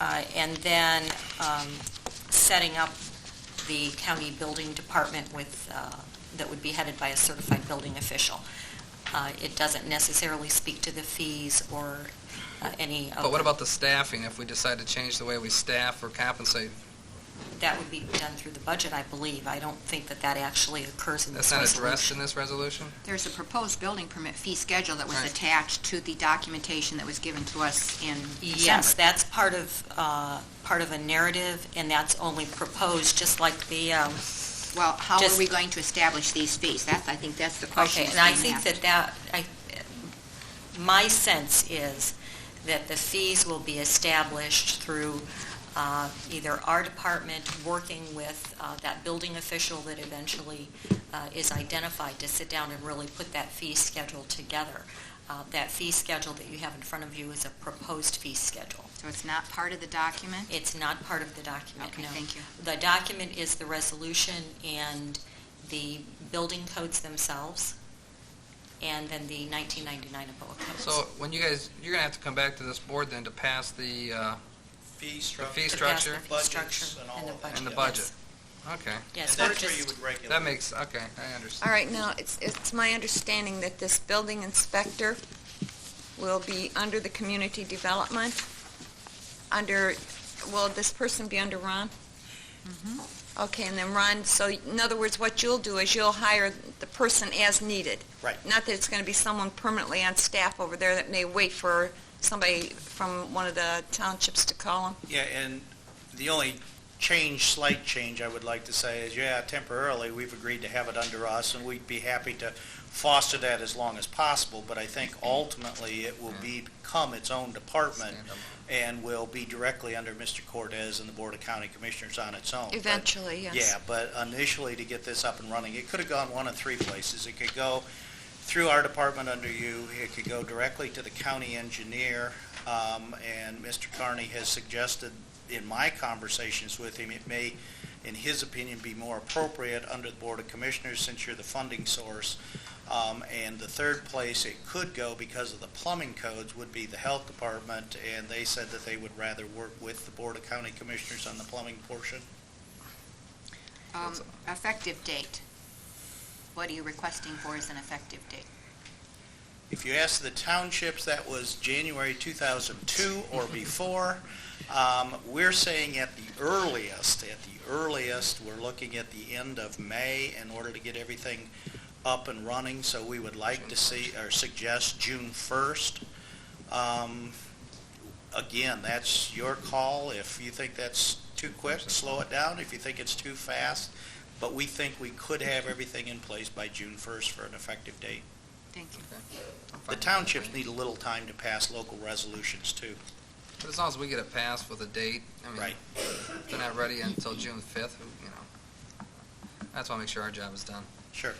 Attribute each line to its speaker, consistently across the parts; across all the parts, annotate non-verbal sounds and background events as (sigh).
Speaker 1: uh, and then um, setting up the county building department with, uh, that would be headed by a certified building official. Uh, It doesn't necessarily speak to the fees or uh, any
Speaker 2: Oh.
Speaker 1: of...
Speaker 3: But what about the staffing, if we decide to change the way we staff or compensate?
Speaker 1: That would be done through the budget, I believe. I don't think that that actually occurs in
Speaker 3: That's
Speaker 1: this
Speaker 3: not
Speaker 1: resolution.
Speaker 3: addressed in this resolution?
Speaker 4: There's a proposed building permit fee schedule that was
Speaker 3: Right.
Speaker 4: attached to the documentation that was given to us in
Speaker 1: Yes,
Speaker 4: December.
Speaker 1: that's part of, uh, part of a narrative, and that's only proposed, just like the, um,
Speaker 4: Well, how
Speaker 1: Just-
Speaker 4: are we going to establish these fees? That's, I think that's the question
Speaker 1: okay,
Speaker 4: that's
Speaker 1: and I think
Speaker 4: being
Speaker 1: that
Speaker 4: asked.
Speaker 1: that, I, my sense is that the fees will be established through uh, either our department working with uh, that building official that eventually uh, is identified to sit down and really put that fee schedule together. Uh, That fee schedule that you have in front of you is a proposed fee schedule.
Speaker 4: So it's not part of the document?
Speaker 1: It's not part of the document,
Speaker 4: Okay,
Speaker 1: no.
Speaker 4: thank you.
Speaker 1: The document is the resolution and the building codes themselves, and then the 1999 APOA codes.
Speaker 3: So when you guys, you're gonna have to come back to this board then to pass the, uh,
Speaker 5: Fee structure.
Speaker 3: fee structure?
Speaker 1: The structure
Speaker 5: Budgets and all of that.
Speaker 3: And the
Speaker 1: yes.
Speaker 3: budget. okay.
Speaker 1: Yes, we're
Speaker 5: And that's where you
Speaker 1: just,
Speaker 5: would regulate.
Speaker 3: That makes, okay, I understand.
Speaker 2: All right, now, it's, it's my understanding that this building inspector will be under the community development, under, will this person be under Ron?
Speaker 5: Mm-hmm.
Speaker 2: Okay, and then Ron, so in other words, what you'll do is you'll hire the person as needed.
Speaker 5: Right.
Speaker 2: Not that it's going to be someone permanently on staff over there that may wait for somebody from one of the townships to call them.
Speaker 5: Yeah, and the only change, slight change I would like to say is, yeah, temporarily, we've agreed to have it under us, and we'd be happy to foster that as long as possible, but I think ultimately it will become its own department
Speaker 3: Stand up.
Speaker 5: and will be directly under Mr. Cortez and the Board of County Commissioners on its own. But-
Speaker 2: Eventually, yes.
Speaker 5: Yeah, but initially to get this up and running, it could have gone one of three places. It could go through our department under you, it could go directly to the county engineer, um, and Mr. Carney has suggested in my conversations with him, it may, in his opinion, be more appropriate under the Board of Commissioners since you're the funding source. Um, and the third place it could go because of the plumbing codes would be the Health Department, and they said that they would rather work with the Board of County Commissioners on the plumbing portion.
Speaker 4: Um, Effective date. What are you requesting for as an effective date?
Speaker 5: If you ask the townships, that was January 2002 or before. Um, We're saying at the earliest, at the earliest, we're looking at the end of May in order to get everything up and running, so we would like to see, or suggest June 1st. Um, Again, that's your call. If you think that's too quick, slow it down. If you think it's too fast, but we think we could have everything in place by June 1st for an effective date.
Speaker 4: Thank you.
Speaker 5: The townships need a little time to pass local resolutions, too.
Speaker 3: But as long as we get it passed with a date, I mean.
Speaker 5: Right.
Speaker 3: If they're not ready until June fifth, you know. That's why I make sure our job is done.
Speaker 5: Sure.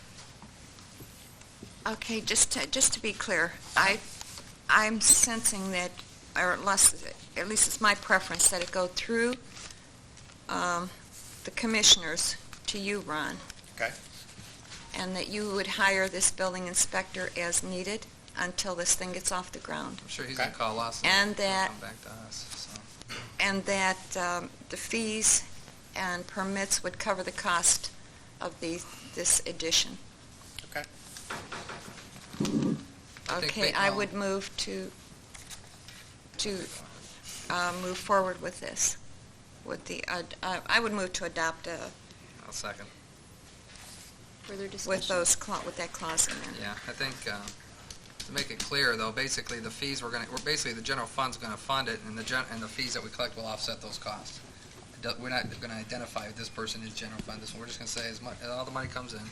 Speaker 2: Okay, just to, just to be clear, I, I'm sensing that, or unless, at least it's my preference, that it go through um, the commissioners to you, Ron.
Speaker 5: Okay.
Speaker 2: And that you would hire this building inspector as needed until this thing gets off the ground.
Speaker 3: I'm sure he's gonna
Speaker 5: Okay.
Speaker 3: call us.
Speaker 2: And
Speaker 3: he'll
Speaker 2: that-
Speaker 3: Come back to us, so.
Speaker 2: And that um, the fees and permits would cover the cost of the, this addition.
Speaker 5: Okay.
Speaker 3: I think
Speaker 2: Okay,
Speaker 3: they-
Speaker 2: I
Speaker 3: um,
Speaker 2: would move to, to uh, move forward with this, with the, uh, uh, I would move to adopt uh,
Speaker 3: I'll second.
Speaker 6: Further discussion?
Speaker 2: with those, cla- with that clause in there.
Speaker 3: Yeah, I think, um, to make it clear, though, basically, the fees we're gonna, we're basically, the general fund's gonna fund it, and the gen, and the fees that we collect will offset those costs. It do- We're not gonna identify this person is general fund, this one, we're just gonna say as much, all the money comes in,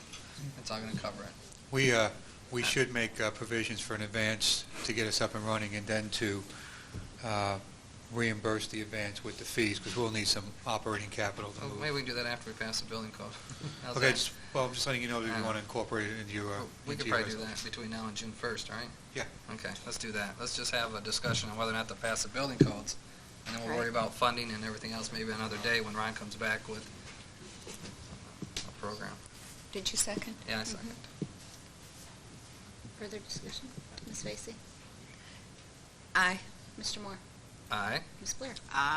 Speaker 3: it's all gonna cover it.
Speaker 7: We, uh, we should make uh, provisions for an advance to get us up and running and then to uh, reimburse the advance with the fees, because we'll need some operating capital to
Speaker 3: Well,
Speaker 7: move.
Speaker 3: Oh, Maybe we can do that after we pass the building code. (laughs) How's
Speaker 7: Okay,
Speaker 3: that?
Speaker 7: just- well, I'm just letting you know that
Speaker 3: Uh,
Speaker 7: you want to incorporate it into your... uh,
Speaker 3: We could
Speaker 7: into your
Speaker 3: probably do
Speaker 7: resolution.
Speaker 3: that between now and June first, right?
Speaker 7: Yeah.
Speaker 3: Okay, let's do that. Let's just have a discussion on whether or not to pass the building codes, and then we'll worry about funding and everything else maybe another day when Ron comes back with a program.
Speaker 2: Did you second?
Speaker 3: Yeah, I second.
Speaker 6: Mm-hmm. Further discussion? Ms. Vacy?
Speaker 2: Aye.
Speaker 6: Mr. Moore?
Speaker 3: Aye.
Speaker 6: Ms. Blair?
Speaker 1: Uh,
Speaker 4: Ah,